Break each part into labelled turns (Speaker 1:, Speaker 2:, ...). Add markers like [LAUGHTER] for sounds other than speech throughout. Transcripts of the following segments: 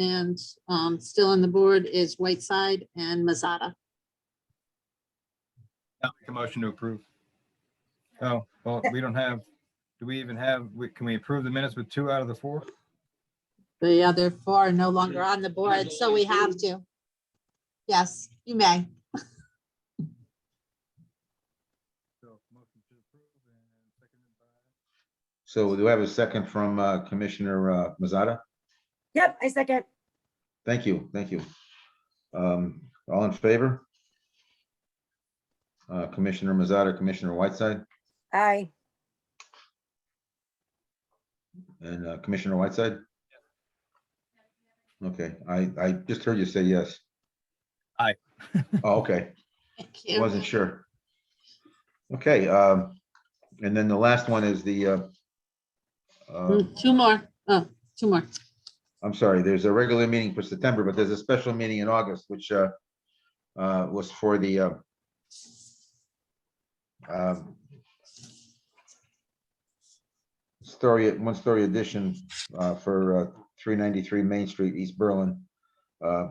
Speaker 1: and um, still on the board is Whiteside and Mazada.
Speaker 2: I'll make a motion to approve. Oh, well, we don't have, do we even have, we- can we approve the minutes with two out of the four?
Speaker 1: The other four are no longer on the board, so we have to. Yes, you may.
Speaker 2: So, motion to approve and seconded by-
Speaker 3: So do we have a second from uh, Commissioner uh, Mazzata?
Speaker 4: Yep, I second.
Speaker 3: Thank you, thank you. Um, All in favor? Uh, Commissioner Mazzata, Commissioner Whiteside,
Speaker 4: Aye.
Speaker 3: and uh, Commissioner Whiteside? Okay, I, I just heard you say yes.
Speaker 2: Aye.
Speaker 3: [LAUGHS] Oh, Okay.
Speaker 1: Thank
Speaker 3: I
Speaker 1: you.
Speaker 3: Wasn't sure. Okay, um, and then the last one is the, uh, uh,
Speaker 1: Mm, Two more, oh, two more.
Speaker 3: I'm sorry, there's a regular meeting for September, but there's a special meeting in August, which, uh, uh, was for the, uh, um, story, one-story addition, uh, for, uh, three ninety-three Main Street, East Berlin. Uh,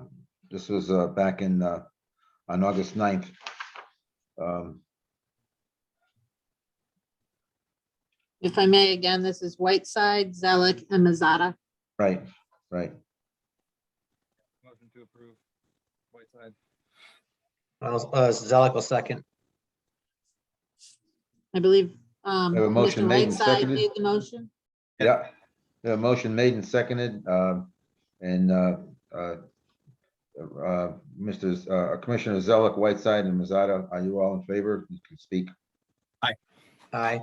Speaker 3: this was, uh, back in, uh, on August 9th. Um,
Speaker 1: If I may, again, this is Whiteside, Zelik, and Mazada.
Speaker 3: Right, right.
Speaker 2: Motion to approve. Whiteside.
Speaker 5: I'll- uh, Zelik will second.
Speaker 1: I believe. um,
Speaker 3: We have a motion
Speaker 1: Mr.
Speaker 3: made and
Speaker 1: Whiteside
Speaker 3: seconded.
Speaker 1: made the motion.
Speaker 3: Yeah, the motion made and seconded, um, and uh, uh, uh, Mr. Z- uh, Commissioner Zelik, Whiteside and Mazzata, are you all in favor? You can speak.
Speaker 5: Aye.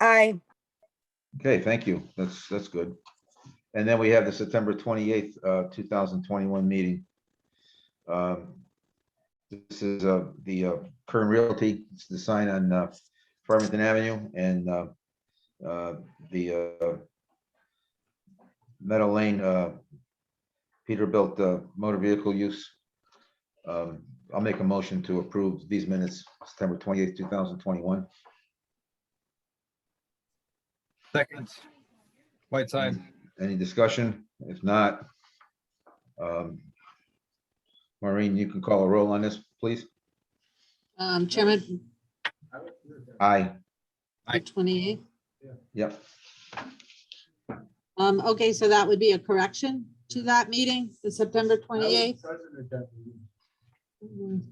Speaker 4: Aye.
Speaker 3: Okay, thank you. That's, that's good. And then we have the September twenty-eighth, uh, two thousand twenty-one meeting. Um, This is, uh, the, uh, Kern Realty, it's the sign on, uh, Farmington Avenue and, uh, uh, the, uh, Meadow Lane, uh, Peterbilt, uh, motor vehicle use. Um, I'll make a motion to approve these minutes, September twenty-eighth, two thousand twenty-one.
Speaker 2: Seconds. Whiteside.
Speaker 3: Any discussion? If not, um, Maureen, you can call a roll on this, please.
Speaker 1: Um, Chairman,
Speaker 3: Aye,
Speaker 2: Aye.
Speaker 1: 28.
Speaker 3: yep,
Speaker 1: Um, okay, so that would be a correction to that meeting, the September 28th. Mm,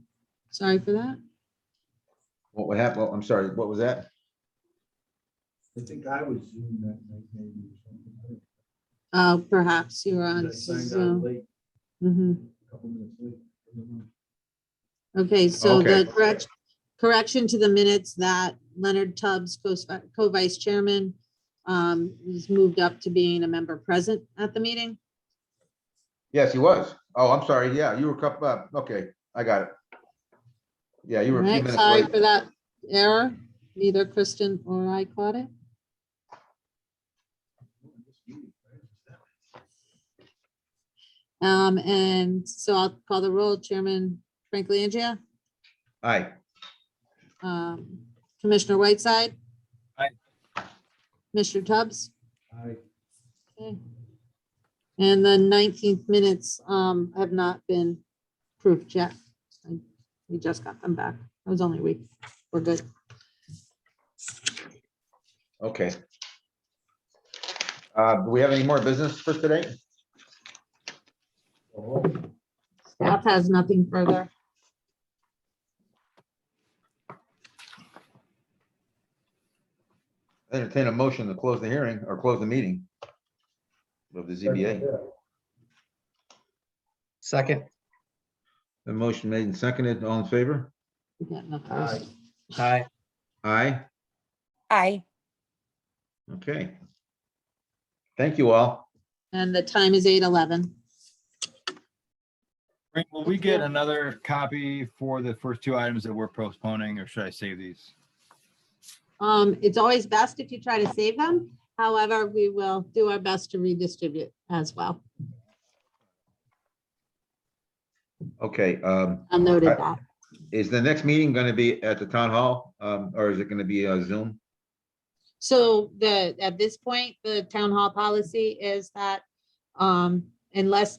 Speaker 1: Sorry for that.
Speaker 3: what would happen, I'm sorry, what was that?
Speaker 6: I think I was Zoom that night maybe or something. I think
Speaker 1: Uh, perhaps you were on
Speaker 6: I signed out
Speaker 1: Zoom.
Speaker 6: late,
Speaker 1: Mhm.
Speaker 6: a couple minutes late. I don't know.
Speaker 1: Okay, so the
Speaker 3: Okay.
Speaker 1: correct, correction to the minutes that Leonard Tubbs, co- co-vice chairman, um, was moved up to being a member present at the meeting.
Speaker 3: Yes, he was. Oh, I'm sorry, yeah, you were cup, uh, okay, I got it. Yeah, you were a few
Speaker 1: Right,
Speaker 3: minutes
Speaker 1: sorry for
Speaker 3: late.
Speaker 1: that error. Neither Kristen or I caught it. Um, and so I'll call the roll. Chairman Frank Langria,
Speaker 3: Aye,
Speaker 1: um, Commissioner Whiteside.
Speaker 2: Aye.
Speaker 1: Mr. Tubbs.
Speaker 6: I,
Speaker 1: Okay. And the nineteenth minutes, um, have not been proofed yet. I- We just got them back. It was only a week. We're good.
Speaker 3: okay. Uh, do we have any more business for today?
Speaker 6: oh,
Speaker 1: Staff has nothing further.
Speaker 3: Entertain a motion to close the hearing or close the meeting of the ZBA.
Speaker 5: Second.
Speaker 3: The motion made and seconded, all in favor?
Speaker 1: We got no
Speaker 6: Aye.
Speaker 1: first.
Speaker 5: Aye.
Speaker 3: Aye,
Speaker 4: Aye.
Speaker 3: okay. Thank you all.
Speaker 1: And the time is eight eleven.
Speaker 2: Frank, Will we get another copy for the first two items that we're postponing, or should I save these?
Speaker 1: Um, it's always best if you try to save them. However, we will do our best to redistribute as well.
Speaker 3: Okay, um,
Speaker 1: I've noted that.
Speaker 3: is the next meeting gonna be at the town hall, um, or is it gonna be uh, Zoom?
Speaker 1: So the, at this point, the town hall policy is that um, unless